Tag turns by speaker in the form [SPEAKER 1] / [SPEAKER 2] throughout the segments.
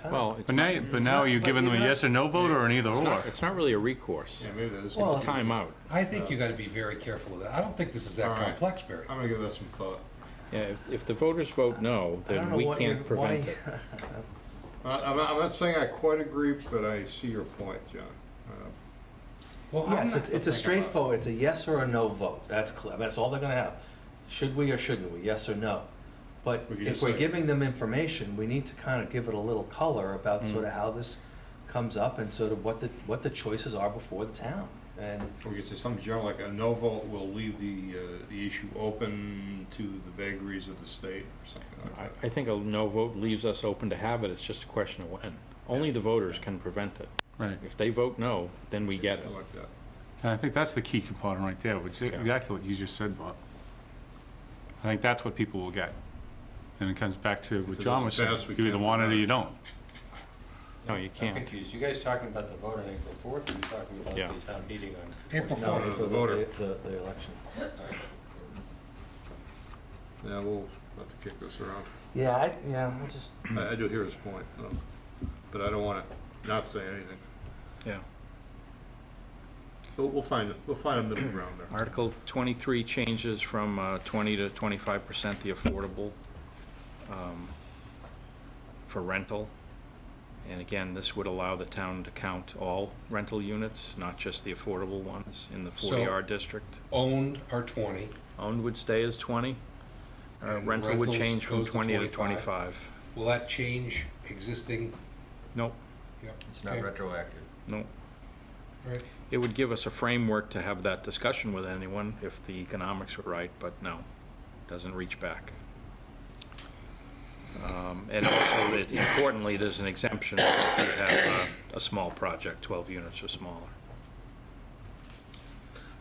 [SPEAKER 1] time.
[SPEAKER 2] Well, it's
[SPEAKER 3] But now,
[SPEAKER 2] not,
[SPEAKER 3] you- but now are you giving them a yes or no vote or an either
[SPEAKER 2] it's
[SPEAKER 3] or?
[SPEAKER 2] not, it's not really a recourse.
[SPEAKER 4] Yeah, maybe that is.
[SPEAKER 2] It's
[SPEAKER 1] Well,
[SPEAKER 2] a timeout.
[SPEAKER 1] I think you gotta be very careful of that. I don't think this is that
[SPEAKER 4] All right.
[SPEAKER 1] complex, Barry.
[SPEAKER 4] I'm gonna give that some thought.
[SPEAKER 2] Yeah, if, if the voters vote no,
[SPEAKER 1] I don't
[SPEAKER 2] then
[SPEAKER 1] know
[SPEAKER 2] we
[SPEAKER 1] what
[SPEAKER 2] can't
[SPEAKER 1] you're-
[SPEAKER 2] prevent
[SPEAKER 1] why-
[SPEAKER 2] it.
[SPEAKER 4] I, I'm not, I'm not saying I quite agree, but I see your point, John. Uh,
[SPEAKER 1] Well,
[SPEAKER 5] Yes,
[SPEAKER 1] I'm not-
[SPEAKER 5] it's, it's a
[SPEAKER 4] think about it.
[SPEAKER 5] straightforward, it's a yes or a no vote, that's clear, that's all they're gonna have. Should we or shouldn't we, yes or no? But
[SPEAKER 4] We can
[SPEAKER 5] if
[SPEAKER 4] just
[SPEAKER 5] we're
[SPEAKER 4] say-
[SPEAKER 5] giving them information, we need to kind of give it a little color about
[SPEAKER 2] Mm.
[SPEAKER 5] sort of how this comes up and sort of what the, what the choices are before the town. And,
[SPEAKER 4] We could say something general, like a no vote will leave the, uh, the issue open to the vagaries of the state or something like
[SPEAKER 2] I,
[SPEAKER 4] that.
[SPEAKER 2] I think a no vote leaves us open to have it, it's just a question of when. Only the voters can prevent it.
[SPEAKER 3] Right.
[SPEAKER 2] If they vote no, then we get it.
[SPEAKER 4] I like that.
[SPEAKER 3] And I think that's the key component right there, which is
[SPEAKER 2] Yeah.
[SPEAKER 3] exactly what you just said, Bob. I think that's what people will get. And it comes back to what
[SPEAKER 4] it
[SPEAKER 3] John
[SPEAKER 4] doesn't
[SPEAKER 3] was saying,
[SPEAKER 4] pass, we
[SPEAKER 3] you either
[SPEAKER 4] can't
[SPEAKER 3] want it or
[SPEAKER 4] deny it.
[SPEAKER 3] you don't.
[SPEAKER 2] No, you
[SPEAKER 6] I'm
[SPEAKER 2] can't.
[SPEAKER 6] confused. You guys talking about the vote on April fourth, or you talking about
[SPEAKER 2] Yeah.
[SPEAKER 6] the town meeting on?
[SPEAKER 1] April
[SPEAKER 5] no,
[SPEAKER 4] the
[SPEAKER 5] for the,
[SPEAKER 4] voter.
[SPEAKER 5] the, the election.
[SPEAKER 4] Yeah, we'll have to kick this around.
[SPEAKER 1] Yeah, I, yeah, I just.
[SPEAKER 4] I, I do hear his point, um, but I don't wanna not say anything.
[SPEAKER 2] Yeah.
[SPEAKER 4] We'll, we'll find, it. we'll find a middle ground there.
[SPEAKER 2] Article 23 changes from uh, 20 to 25% the affordable um, for rental. And again, this would allow the town to count all rental units, not just the affordable ones in the
[SPEAKER 7] So-
[SPEAKER 2] 40R district.
[SPEAKER 7] owned are 20.
[SPEAKER 2] Owned would stay as 20. Uh,
[SPEAKER 7] and
[SPEAKER 2] Rental would
[SPEAKER 7] rentals
[SPEAKER 2] change from
[SPEAKER 7] goes
[SPEAKER 2] 20 to 25.
[SPEAKER 7] Will that change existing?
[SPEAKER 2] Nope,
[SPEAKER 7] Yep.
[SPEAKER 6] It's not
[SPEAKER 7] Okay.
[SPEAKER 6] retroactive.
[SPEAKER 2] nope.
[SPEAKER 7] Right.
[SPEAKER 2] It would give us a framework to have that discussion with anyone if the economics were right, but no, doesn't reach back. Um, And also, it- importantly, there's an exemption if you have a, a small project, 12 units or smaller.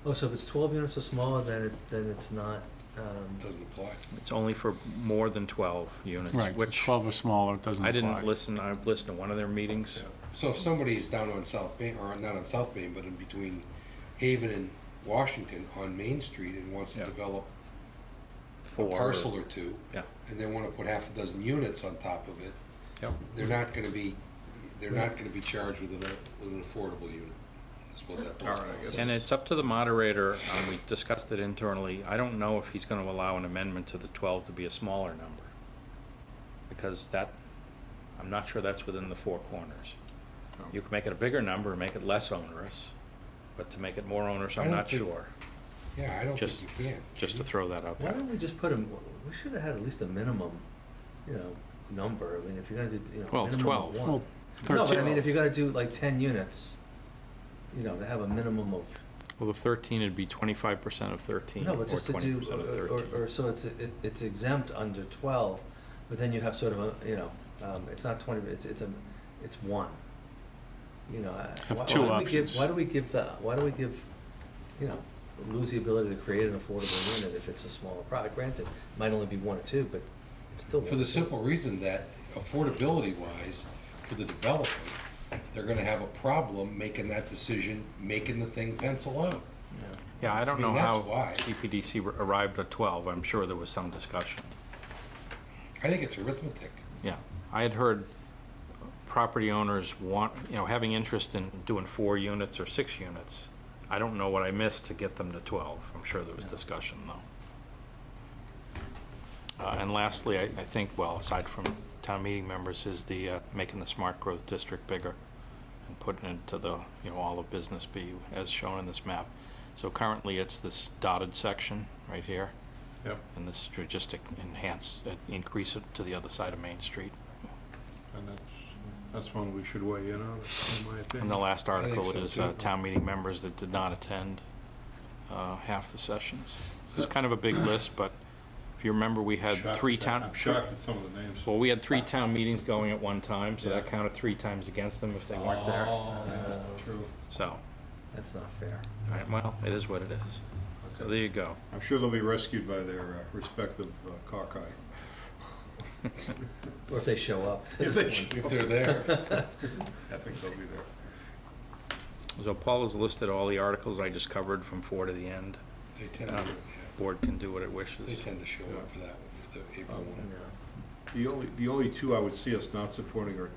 [SPEAKER 5] Oh, so if it's twelve units or smaller, then it, then it's not, um,
[SPEAKER 7] Doesn't apply.
[SPEAKER 2] It's only for more than 12 units,
[SPEAKER 3] Right, so
[SPEAKER 2] which
[SPEAKER 3] 12 or smaller, it doesn't
[SPEAKER 2] I
[SPEAKER 3] apply.
[SPEAKER 2] didn't listen, I listened to one of their meetings.
[SPEAKER 7] So if somebody's down on South Main, or not on South Main, but in between Haven and Washington on Main Street and wants to
[SPEAKER 2] Yeah.
[SPEAKER 7] develop a
[SPEAKER 2] for
[SPEAKER 7] parcel or two,
[SPEAKER 2] Yeah.
[SPEAKER 7] and they want to put half a dozen units on top of it,
[SPEAKER 2] Yep.
[SPEAKER 7] they're not going to be, they're not going to be charged with an, with an affordable unit. That's what that.
[SPEAKER 4] All right, I guess.
[SPEAKER 2] And it's up to the moderator, um, we discussed it internally, I don't know if he's gonna allow an amendment to the twelve to be a smaller number. Because that, I'm not sure that's within the four corners. You can make it a bigger number, and make it less onerous, but to make it more onerous,
[SPEAKER 7] I
[SPEAKER 2] I'm
[SPEAKER 7] don't
[SPEAKER 2] not
[SPEAKER 7] think-
[SPEAKER 2] sure,
[SPEAKER 7] Yeah, I don't
[SPEAKER 2] Just-
[SPEAKER 7] think you can.
[SPEAKER 2] just to throw that out
[SPEAKER 5] Why
[SPEAKER 2] there.
[SPEAKER 5] don't we just put a, we should have had at least a minimum, you know, number, I mean, if you're gonna do, you know.
[SPEAKER 2] Well, it's
[SPEAKER 5] minimum of
[SPEAKER 2] 12.
[SPEAKER 5] one.
[SPEAKER 3] Well,
[SPEAKER 5] No, but I
[SPEAKER 3] 13
[SPEAKER 5] mean, if you're gonna do like ten units, you know, to have a minimum of,
[SPEAKER 2] Well, the thirteen would be twenty-five percent of thirteen,
[SPEAKER 5] no,
[SPEAKER 2] or
[SPEAKER 5] but just to
[SPEAKER 2] twenty
[SPEAKER 5] do,
[SPEAKER 2] percent of
[SPEAKER 5] or- or,
[SPEAKER 2] thirteen.
[SPEAKER 5] or, so it's, it- it's exempt under twelve, but then you have sort of a, you know, um, it's not twenty, but it's, it's a, it's one. You know, I-
[SPEAKER 3] Have
[SPEAKER 5] why, why
[SPEAKER 3] two
[SPEAKER 5] do we give,
[SPEAKER 3] options.
[SPEAKER 5] why do we give the, why do we give, you know, lose the ability to create an affordable unit if it's a smaller product, granted, it might only be one or two, but it's still.
[SPEAKER 7] For
[SPEAKER 5] one or
[SPEAKER 7] the
[SPEAKER 5] two.
[SPEAKER 7] simple reason that affordability-wise, for the developer, they're gonna have a problem making that decision, making the thing pencil out.
[SPEAKER 5] Yeah.
[SPEAKER 2] Yeah, I
[SPEAKER 7] I
[SPEAKER 2] don't know
[SPEAKER 7] mean, that's
[SPEAKER 2] how
[SPEAKER 7] why.
[SPEAKER 2] DPDC r- arrived at twelve, I'm sure there was some discussion.
[SPEAKER 7] I think it's arithmetic.
[SPEAKER 2] Yeah, I had heard property owners want, you know, having interest in doing four units or six units. I don't know what I missed to get them to 12. I'm sure there was discussion, though. Uh, And lastly, I, I think, well, aside from town meeting members, is the, uh, making the smart growth district bigger and putting it to the, you know, all of Business B as shown in this map. So currently, it's this dotted section right here.
[SPEAKER 4] Yep,
[SPEAKER 2] And this would just enhance, uh, increase it to the other side of Main Street.
[SPEAKER 4] and that's, that's one we should weigh in on, in my
[SPEAKER 2] And the
[SPEAKER 4] opinion.
[SPEAKER 2] last article
[SPEAKER 7] so,
[SPEAKER 2] is uh,
[SPEAKER 7] too.
[SPEAKER 2] town meeting members that did not attend uh, half the sessions. It's kind of a big list, but if you remember, we had
[SPEAKER 4] Shocked
[SPEAKER 2] three
[SPEAKER 4] at that.
[SPEAKER 2] town,
[SPEAKER 4] I'm shocked at some of the names.
[SPEAKER 2] well, we had three town meetings going at one time, so that
[SPEAKER 4] Yeah.
[SPEAKER 2] counted three times against them if they weren't there.
[SPEAKER 4] Oh, true.
[SPEAKER 2] So,
[SPEAKER 5] Uh, That's not fair.
[SPEAKER 2] all right, well, it is what it is. So there you go.
[SPEAKER 4] I'm sure they'll be rescued by their uh, respective uh, cockeye.
[SPEAKER 5] Or if they show up.
[SPEAKER 7] If they're there,
[SPEAKER 4] I think they'll be there.
[SPEAKER 2] So Paul has listed all the articles I just covered from four to the end.
[SPEAKER 7] they tend to,
[SPEAKER 2] Um, Board can do what it wishes.
[SPEAKER 7] they tend to show up for that one, for the April one.
[SPEAKER 5] No.
[SPEAKER 4] The only, the only two I would see us not supporting are